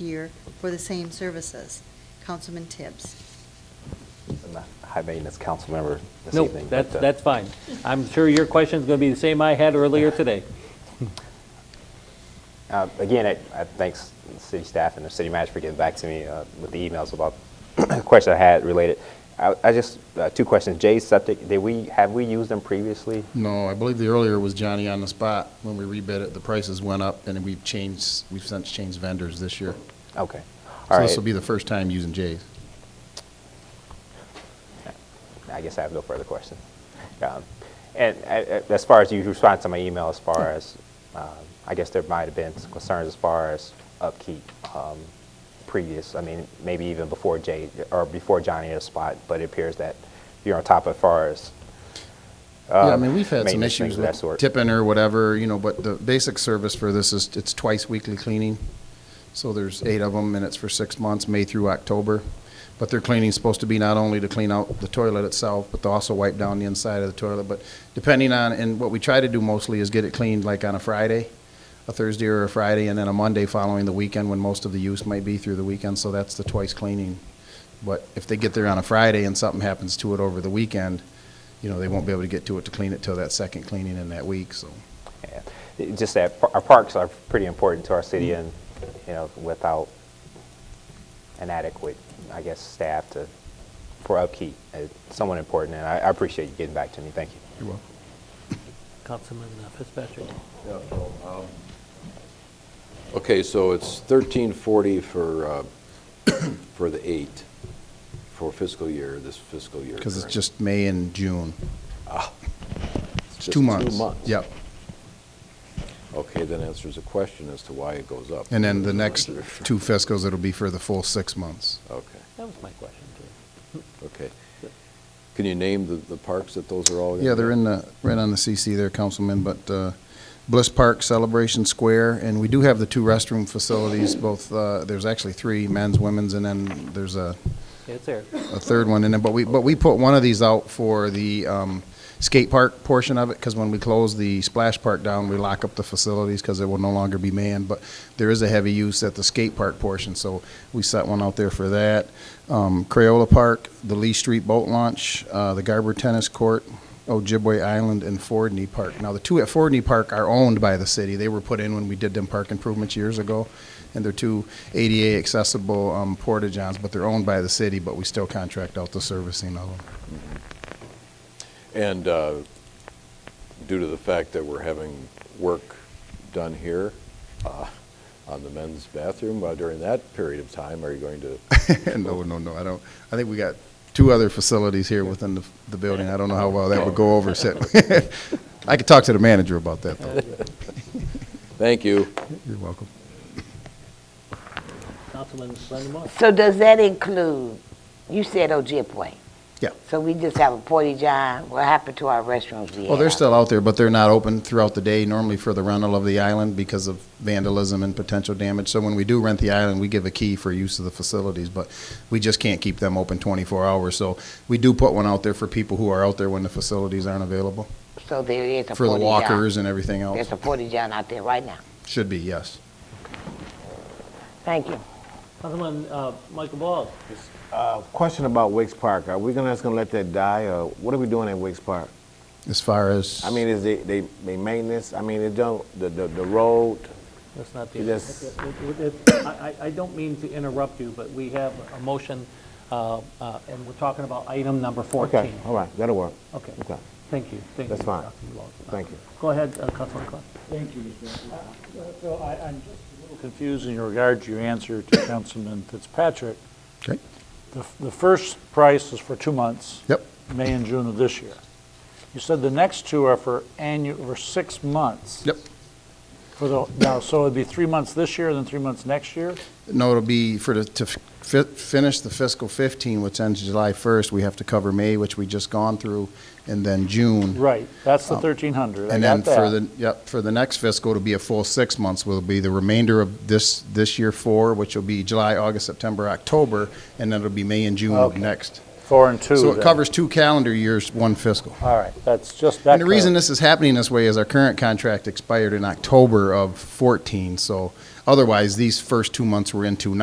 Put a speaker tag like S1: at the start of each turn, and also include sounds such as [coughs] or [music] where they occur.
S1: year for the same services. Councilman Tibbs.
S2: I'm not high maintenance council member this
S3: No,
S2: evening.
S3: that's,
S2: but, uh,
S3: that's fine. I'm sure your question's going to be the same I had earlier today.
S2: uh, Again, I- I thanks the city staff and the city manager for getting back to me uh, with the emails about [clears throat] the question I had related. I I just, uh, two questions. Jay's septic, did we, have we used them previously?
S4: No, I believe the earlier was Johnny on the spot. When we rebid it, the prices went up, and we've changed, we've since changed vendors this year.
S2: Okay, all
S4: So
S2: right.
S4: this will be the first time using Jay's.
S2: I guess I have no further questions. Um, And uh, uh, as far as you respond to my email, as far as, um, I guess there might have been some concerns as far as upkeep um, previous, I mean, maybe even before Jay, or before Johnny had a spot, but it appears that you're on top as far as.
S4: Yeah, I
S2: um,
S4: mean, we've had some
S2: maintenance, things
S4: issues
S2: of that
S4: with
S2: sort.
S4: tipping or whatever, you know, but the basic service for this is, it's twice weekly cleaning. So there's eight of them, and it's for six months, May through October. But their cleaning's supposed to be not only to clean out the toilet itself, but to also wipe down the inside of the toilet. But depending on, and what we try to do mostly is get it cleaned like on a Friday, a Thursday or a Friday, and then a Monday following the weekend when most of the use might be through the weekend, so that's the twice cleaning. But if they get there on a Friday and something happens to it over the weekend, you know, they won't be able to get to it to clean it till that second cleaning in that week, so.
S2: Yeah. It- Just that par- our parks are pretty important to our city and, you know, without an adequate, I guess, staff to, for upkeep, it's somewhat important, and I I appreciate you getting back to me. Thank you.
S4: You're welcome.
S3: Councilman uh, Fitzpatrick.
S5: Okay, so it's thirteen forty for, uh, [coughs] for the eight, for fiscal year, this fiscal year.
S4: Because it's
S5: correct?
S4: just May and June.
S5: It's
S4: It's
S5: just
S4: two months.
S5: Two months.
S4: Yep.
S5: Okay, that answers the question as to why it goes up.
S4: And then the
S5: [laughs]
S4: next two fiscals, it'll be for the full six months.
S5: Okay,
S3: That was my question, too.
S5: okay. Can you name the, the parks that those are all? gonna
S4: Yeah, they're
S5: be?
S4: in the, right on the CC there, Councilman, but uh, Bliss Park, Celebration Square, and we do have the two restroom facilities, both, uh, there's actually three, men's, women's, and then there's a,
S3: Yeah, It's there.
S4: a third one in there, but we, but we put one of these out for the um, skate park portion of it, because when we close the splash park down, we lock up the facilities, because it will no longer be manned, but there is a heavy use at the skate park portion, so we set one out there for that. Um, Crayola Park, the Lee Street Boat Launch, uh, the Garber Tennis Court, Ojibwe Island, and Fordney Park. Now, the two at Fordney Park are owned by the city, they were put in when we did them park improvements years ago, and they're two ADA accessible um, porta-johns, but they're owned by the city, but we still contract out the servicing of them.
S5: And uh, due to the fact that we're having work done here uh, on the men's bathroom uh, during that period of time, are you
S4: [laughs]
S5: going to?
S4: No, no, no, I don't, I think we got two other facilities here within the, the building, I don't know how well that would go over, [laughs] sit. I could talk to the manager about that, though.
S5: Thank you.
S4: You're welcome.
S3: Councilman Brendan Moore.
S6: So does that include, you said Ojibwe?
S4: Yeah.
S6: So we just have a porta john, what happened to our restrooms we
S4: Well, they're
S6: have?
S4: still out there, but they're not open throughout the day normally for the rental of the island because of vandalism and potential damage. So when we do rent the island, we give a key for use of the facilities, but we just can't keep them open 24 hours. So we do put one out there for people who are out there when the facilities aren't available,
S6: So there is a porta john?
S4: for the walkers and everything else.
S6: There's a porta john out there right now.
S4: Should be, yes.
S6: Thank you.
S3: Councilman uh, Michael Ball.
S7: Uh, Question about Wicks Park. Are we gonna, just gonna let that die, or what are we doing at Wicks Park?
S4: As far as,
S7: I mean, is they, they, they maintenance, I mean, it don't, the, the, the road,
S3: That's not the.
S7: It is-
S3: it- it- it- I I- I don't mean to interrupt you, but we have a motion, uh, uh, and we're talking about item number 14.
S7: okay, all right, that'll work.
S3: Okay.
S7: Okay.
S3: Thank you. Thank
S7: That's
S3: you,
S7: fine.
S3: Councilman Ball. Uh,
S7: Thank you.
S3: Go ahead, uh, Councilman Clark.
S8: Thank you, Mr. Mayor. So Uh, I, I'm just a little confused in regard to your answer to Councilman Fitzpatrick.
S4: Okay.
S8: The, the first price is for two months.
S4: Yep.
S8: May and June of this year. You said the next two are for annual, for six months.
S4: Yep.
S8: For the, now, so it'd be three months this year, then three months next year?
S4: no, it'll be for the, to fi- finish the fiscal 15, which ends July 1st, we have to cover May, which we just gone through, and then June.
S8: Right, that's the
S4: Um,
S8: 1,300, I
S4: And then
S8: got
S4: for
S8: that.
S4: the, yep, for the next fiscal, it'll be a full six months, will be the remainder of this, this year four, which will be July, August, September, October, and then it'll be May and June of
S8: Okay.
S4: next.
S8: Four and two
S4: So it
S8: then.
S4: covers two calendar years, one fiscal.
S8: All right, that's just that.
S4: And the reason
S8: clar-
S4: this is happening this way is our current contract expired in October of 14, so Otherwise, these first two months we're into now.